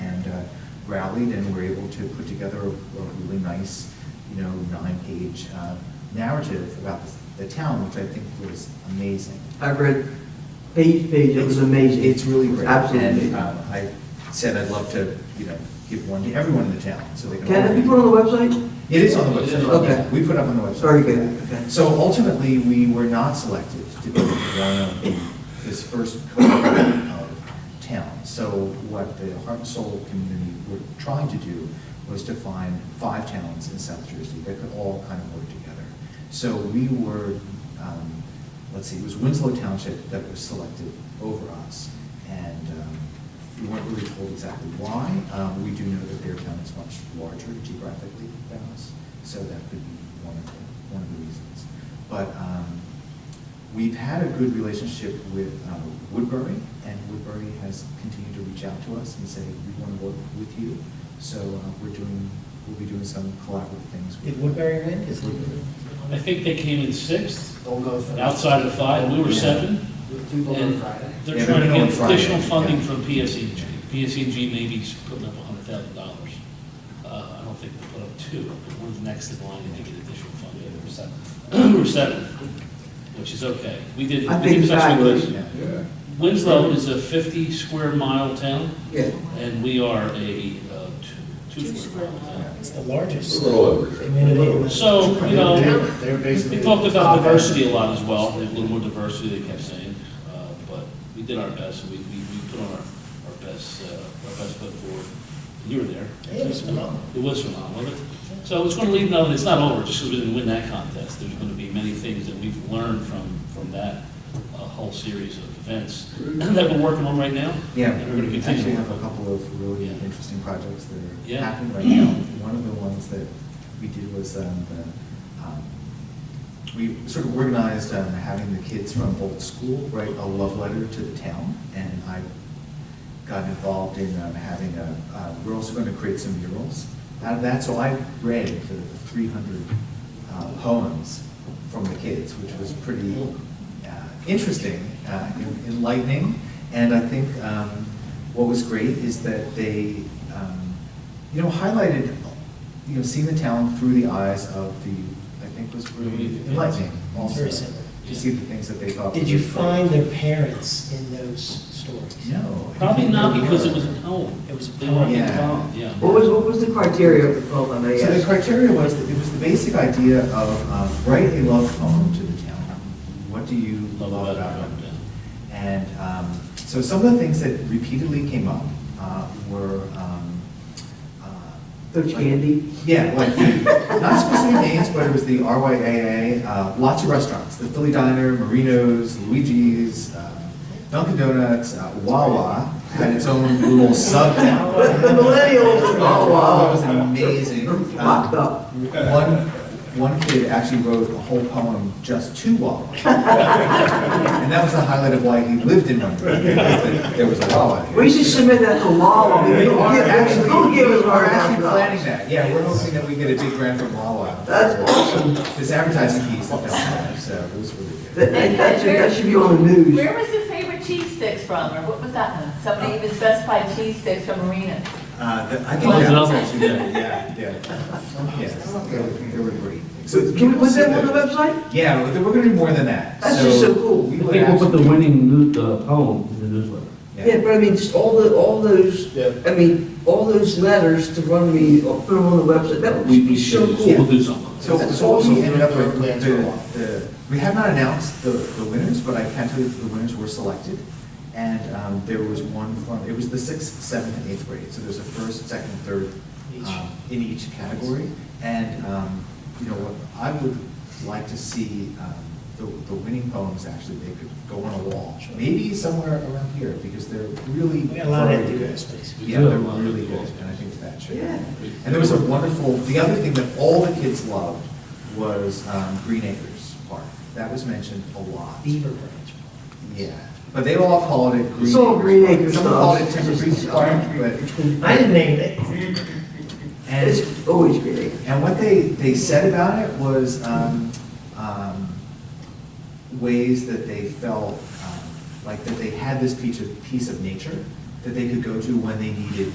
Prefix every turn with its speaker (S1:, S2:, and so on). S1: uh, rallied and were able to put together a a really nice, you know, nine-page uh, narrative about the- the town, which I think was amazing.
S2: I've read page, page, it was amazing.
S1: It's really great.
S2: Absolutely.
S1: And um, I said I'd love to, you know, give one to everyone in the town, so they can.
S2: Can that be put on the website?
S1: It is on the website.
S2: Okay.
S1: We put up on the website.
S2: Very good, okay.
S1: So ultimately, we were not selected to be one of this first cohort of towns. So what the Heart and Soul community were trying to do was to find five towns in South Jersey that could all kind of work together. So we were, um, let's see, it was Winslow Township that was selected over us. And um, we weren't really told exactly why. Um, We do know that their town is much larger geographically than us, so that could be one of the, one of the reasons. But um, we've had a good relationship with um, Woodbury, and Woodbury has continued to reach out to us and say, we want to work with you. So uh, we're doing, we'll be doing some collaborative things. with-
S3: Did Woodbury win?
S1: Yes, Woodbury.
S4: I think they came in sixth,
S3: They'll go for.
S4: outside of five, we were
S1: Yeah.
S4: seven.
S3: People on
S4: And
S3: Friday.
S1: Yeah,
S4: They're trying
S1: they're
S4: to
S1: going
S4: get
S1: Friday,
S4: additional funding
S1: yeah.
S4: from E PSEG. PSEG maybe is putting up a hundred thousand dollars. Uh, I don't think they put up two, but we're the next in line to get additional funding. We're seventh. We're seventh, which is okay. We did.
S2: I
S4: we
S2: think
S4: did
S2: it's
S4: touch
S2: fabulous.
S4: wood.
S1: Yeah.
S4: Winslow is a fifty square mile town,
S2: Yeah.
S4: and we are a uh, two, two square mile town.
S3: It's the largest
S5: A little over.
S3: community.
S4: So, you know,
S3: They're basically.
S4: We talked about diversity a lot as well, a little more diversity, they kept saying, uh, but we did our best, we, we we put on our, our best, uh, our best foot forward. You were there.
S3: It was phenomenal.
S4: It was phenomenal, wasn't it? So it's gonna leave, no, it's not over, just because we didn't win that contest, there's gonna be many things that we've learned from, from that uh, whole series of events that we're working on right now.
S1: Yeah,
S4: And we're gonna
S1: we actually
S4: continue.
S1: have a couple of really
S4: Yeah.
S1: interesting projects that are
S4: Yeah.
S1: happening right now. One of the ones that we did was um, the, um, we sort of organized um, having the kids from old school write a love letter to the town, and I got involved in um, having a, uh, we're also going to create some murals out of that. So I read the 300 uh, poems from the kids, which was pretty uh, interesting, uh, en- enlightening. And I think um, what was great is that they, um, you know, highlighted, you know, seeing the town through the eyes of the, I think was really enlightening
S3: It's
S1: also,
S3: very simple.
S1: to see the things that they thought.
S3: Did you
S1: were great.
S3: find their parents in those stories?
S1: No. I
S4: Probably
S1: think
S4: not
S1: they
S4: because it
S1: were.
S4: was a poem.
S3: It was a
S4: They were
S1: poem. Yeah.
S4: poem, Yeah.
S2: What was, what was the criteria of the poem, I may
S1: So the
S2: ask?
S1: criteria was, that it was the basic idea of um, write a love poem to the town. What do you
S4: Love
S1: love
S4: about
S1: about
S4: Uptown.
S1: Uptown? And um, so some of the things that repeatedly came up uh, were. um, uh,
S2: Coach
S1: like-
S2: Candy?
S1: Yeah, like, the- not specific names, but it was the RYAA, uh, lots of restaurants, the Philly Diner, Marino's, Luigi's, uh, Dunkin' Donuts, uh, Wawa had its own little sub-town.
S2: But the millennials, oh,
S1: Wawa was
S2: wow.
S1: amazing. Um,
S2: Locked up.
S1: one, one kid actually wrote a whole poem just to Wawa. And that was the highlight of why he lived in Monroe, because there- there was a Wawa. here.
S2: We should submit that to law, we
S1: We are actually,
S2: don't give us
S1: we are
S2: our
S1: actually planning
S2: half
S1: that, yeah, we're hoping that we get a big grant from Wawa.
S2: That's awesome.
S1: This advertising piece that they'll have, so it was really good.
S2: That, that- that should, that should be on the news.
S6: Where was your favorite cheese sticks from, or what was that one? Somebody even specified cheese sticks from Marina.
S1: Uh, the- I
S4: Oh,
S1: think that was
S4: double.
S1: actually, good, yeah, yeah. Yes, they were, they were great.
S2: So Can we put that on the website?
S1: Yeah, we're we're gonna do more than that.
S2: That's just so cool.
S1: we
S7: I
S1: would
S7: think we'll put
S1: actually-
S7: the winning new, uh, poem in the newsletter.
S2: Yeah, but I mean, just all the, all those,
S3: Yeah.
S2: I mean, all those letters to run me, or put them on the website, that would be so
S7: We'll
S2: cool.
S7: do something.
S1: So,
S2: That's
S1: so what we
S3: awesome.
S1: ended up with,
S3: Yeah.
S1: the, the, we have not announced the, the winners, but I can tell you that the winners were selected. And, um, there was one from, it was the sixth, seventh, and eighth grade, so there's a first, second, third, um, in each category. And, um, you know, what I would like to see, um, the, the winning poems, actually, they could go on a wall. Maybe somewhere around here, because they're really.
S3: We got a lot of
S1: very
S3: empty
S1: good.
S3: space.
S1: Yeah, they're really good, and I think that should.
S2: Yeah.
S1: And there was a wonderful, the other thing that all the kids loved was um, Green Acres Park. That was mentioned a lot.
S3: Beaver Branch.
S1: Yeah, but they all called it Green Acres.
S2: It's all Green
S1: Park.
S2: Acres
S1: Some
S2: stuff.
S1: called it Timber Creek Park, but,
S3: I didn't name it.
S1: and,
S2: It's always great.
S1: and what they, they said about it was um, um, ways that they felt, um, like that they had this piece of, piece of nature that they could go to when they needed